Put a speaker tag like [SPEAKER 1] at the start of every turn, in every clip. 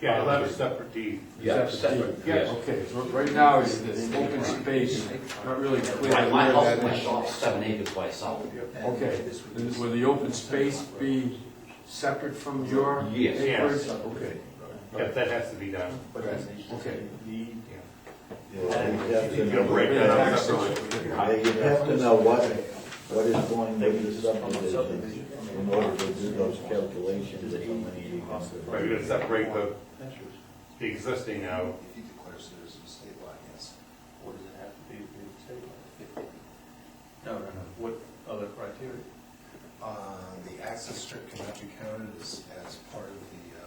[SPEAKER 1] Yeah, I left separate deed.
[SPEAKER 2] Yeah, separate, yes.
[SPEAKER 3] Okay, so right now it's this open space, not really clear.
[SPEAKER 2] My, my
[SPEAKER 3] where
[SPEAKER 2] house,
[SPEAKER 3] that-
[SPEAKER 2] my shop's seven acres by itself.
[SPEAKER 3] Okay, and will the open space be separate from your
[SPEAKER 2] Yes.
[SPEAKER 3] acreage?
[SPEAKER 1] Yes.
[SPEAKER 3] Okay,
[SPEAKER 1] Yeah, that has to be done.
[SPEAKER 3] okay.
[SPEAKER 1] You gotta break that up separately.
[SPEAKER 4] You have to know what, what is going with the subdivision in order to do those calculations of how many you
[SPEAKER 1] Right, you
[SPEAKER 4] can.
[SPEAKER 1] gotta separate the, the existing out.
[SPEAKER 5] If you declare citizen state law, yes, or does it have to be the state law?
[SPEAKER 6] No, no, no, what other criteria?
[SPEAKER 5] Uh, the access strip cannot be counted as, as part of the, uh,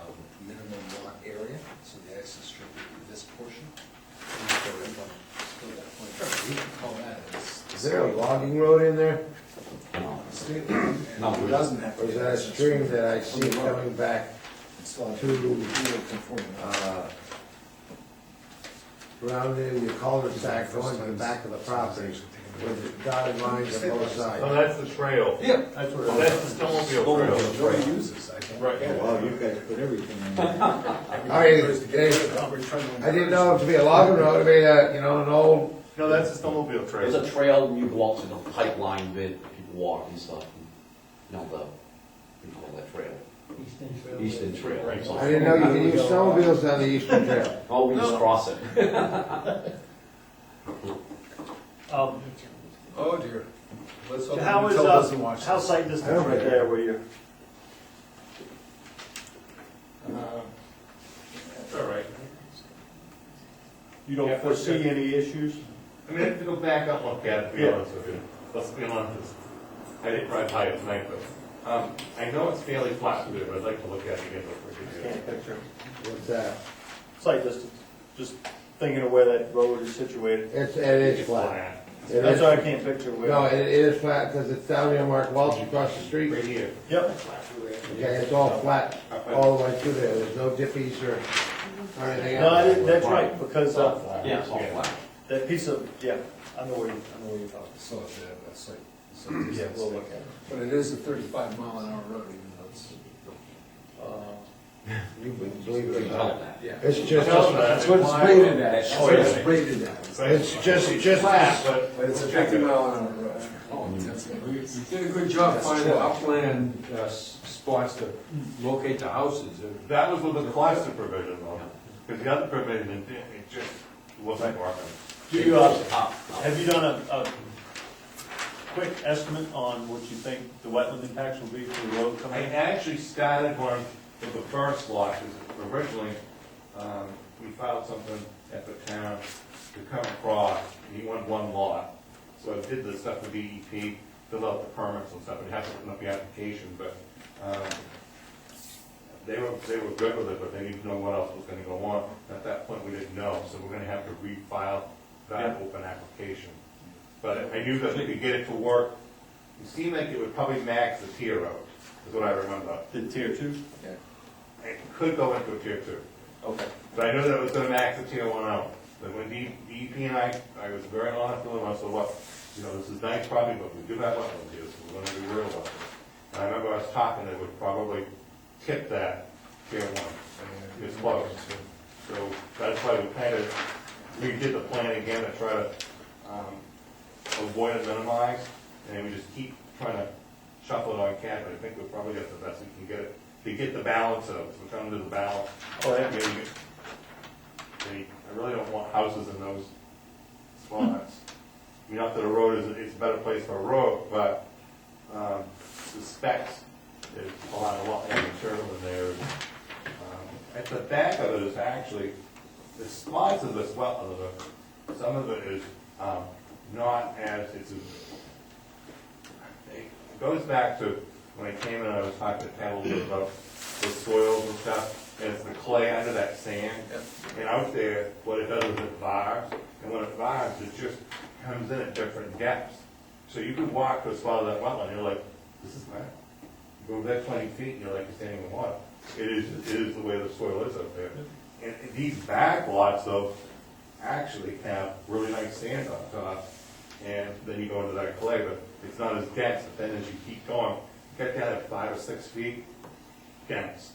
[SPEAKER 5] um, minimum lot area, so the access strip would be this portion. And so if I'm still at that point, we can call that as.
[SPEAKER 7] Is there a logging road in there?
[SPEAKER 5] State law, and
[SPEAKER 2] No,
[SPEAKER 5] it doesn't have to.
[SPEAKER 7] Or
[SPEAKER 5] be
[SPEAKER 7] is that a
[SPEAKER 5] access
[SPEAKER 7] stream
[SPEAKER 5] strip.
[SPEAKER 7] that I see coming back,
[SPEAKER 5] It's not,
[SPEAKER 7] to-
[SPEAKER 5] you're conforming.
[SPEAKER 7] uh, around in your cul-de-sac going to the back of the property with the dotted lines on both
[SPEAKER 1] No,
[SPEAKER 7] sides?
[SPEAKER 1] that's the trail.
[SPEAKER 5] Yeah.
[SPEAKER 6] That's
[SPEAKER 1] Well, That's the snowmobile trail.
[SPEAKER 5] Nobody uses, I think.
[SPEAKER 6] Right.
[SPEAKER 4] Wow, you guys put everything in there.
[SPEAKER 7] All right, Dave, I didn't know it to be a logging road, it'd be a, you know, an old,
[SPEAKER 1] No, that's the snowmobile
[SPEAKER 2] There's
[SPEAKER 1] trail.
[SPEAKER 2] a trail, and you go out to the pipeline bit, people walk and stuff, and, you know, the, what do you call that trail? Eastern Trail.
[SPEAKER 1] Right.
[SPEAKER 2] Eastern Trail.
[SPEAKER 7] I didn't know you could use snowmobiles on the eastern trail.
[SPEAKER 2] Oh, we just cross it.
[SPEAKER 8] Um,
[SPEAKER 5] Oh dear. Let's hope
[SPEAKER 8] How is,
[SPEAKER 5] Intel doesn't
[SPEAKER 8] uh,
[SPEAKER 5] watch
[SPEAKER 8] how
[SPEAKER 5] this.
[SPEAKER 8] sight distance?
[SPEAKER 4] where you.
[SPEAKER 1] Uh, All right. Yeah,
[SPEAKER 6] You don't
[SPEAKER 1] for
[SPEAKER 6] foresee
[SPEAKER 1] sure.
[SPEAKER 6] any issues?
[SPEAKER 1] I mean, I have to go back up and look at it, to be honest with you. Let's be honest. I didn't ride high at night, but, um, I know it's fairly flat, but I'd like to look at it again before we do it.
[SPEAKER 7] What's that?
[SPEAKER 6] Site distance, just thinking of where that road is situated.
[SPEAKER 7] It's, it is flat. It is-
[SPEAKER 6] That's why I can't picture
[SPEAKER 7] No,
[SPEAKER 6] where.
[SPEAKER 7] it it is flat, because it's down near Mark Welch across the street.
[SPEAKER 1] Right here.
[SPEAKER 6] Yep,
[SPEAKER 7] Okay, it's all flat, all the way through there, there's no dippies or, or anything
[SPEAKER 6] no, I
[SPEAKER 7] else.
[SPEAKER 6] didn't- that's right, because, uh,
[SPEAKER 2] Yeah, it's all
[SPEAKER 1] Yeah.
[SPEAKER 2] flat.
[SPEAKER 6] that piece of, yeah, I know where you, I know where you're talking.
[SPEAKER 5] So if they have a site. so
[SPEAKER 6] Yeah,
[SPEAKER 5] it's-
[SPEAKER 6] we'll look at it.
[SPEAKER 5] But it is a thirty-five mile an hour road, even though it's.
[SPEAKER 6] Uh,
[SPEAKER 7] You wouldn't believe
[SPEAKER 2] You can
[SPEAKER 7] it.
[SPEAKER 2] tell that.
[SPEAKER 7] It's just,
[SPEAKER 1] That's
[SPEAKER 3] what it's rated at.
[SPEAKER 2] That's-
[SPEAKER 5] So it's rated that.
[SPEAKER 7] it's just, just
[SPEAKER 1] Flat,
[SPEAKER 7] flat.
[SPEAKER 1] but.
[SPEAKER 5] But it's a fifty mile an hour road. Oh.
[SPEAKER 3] You you did a good job finding upland uh, s- spots to locate the houses.
[SPEAKER 1] That was with the cluster provision though, because the other provision, it didn't- it just wasn't working.
[SPEAKER 6] Do you, uh,
[SPEAKER 2] Up, up.
[SPEAKER 6] have you done a, a quick estimate on what you think the wetland impacts will be for the road
[SPEAKER 1] I
[SPEAKER 6] coming in?
[SPEAKER 1] actually started one with the first lot, because originally, um, we filed something at the town to come across, and he wanted one lot. So I did the stuff with DEP, filled out the permits and stuff, and had to open up the application, but, um, they were, they were good with it, but they didn't know what else was gonna go on. At that point, we didn't know, so we're gonna have to refile that open application. But I knew that we could get it to work, it seemed like it would probably max the tier out, is what I remember.
[SPEAKER 6] The tier two?
[SPEAKER 1] It could go into a tier two,
[SPEAKER 6] Okay.
[SPEAKER 1] but I know that it was gonna max the tier oh one out. But when D- DEP and I, I was very honest with them, I said, look, you know, this is nice property, but we do have wetlands here, so we're gonna be real about it. And I remember I was talking, they would probably tip that tier one, it's close. So that's why we kind of redid the plan again to try to, um, avoid and minimize, and we just keep trying to shuffle it on cat, but I think we'll probably get the best we can get it. To get the balance of, it, so we're trying to do the balance.
[SPEAKER 6] Oh, yeah.
[SPEAKER 1] Maybe get- they- I really don't want houses in those spots. I mean, not that a road is, it's a better place for a road, but, um, the specs, there's a lot of lot of material in there. Um, At the back of it is actually, the spots of this well, of the- some of it is, um, not as, it's a it goes back to when I came in, I was talking to Ted a little bit about the soils and stuff, and it's the clay under that sand. And out there, what it does is it vibes, and when it vibes, it just comes in at different depths. So you can walk to a spot of that wetland, and you're like, this is mad. You go there twenty feet, and you're like, you're standing in water. It is, it is the way the soil is up there. And and these back lots though, actually have really nice sand on top, and then you go into that clay, but it's not as dense, but then as you keep going, you get down at five or six feet, dense.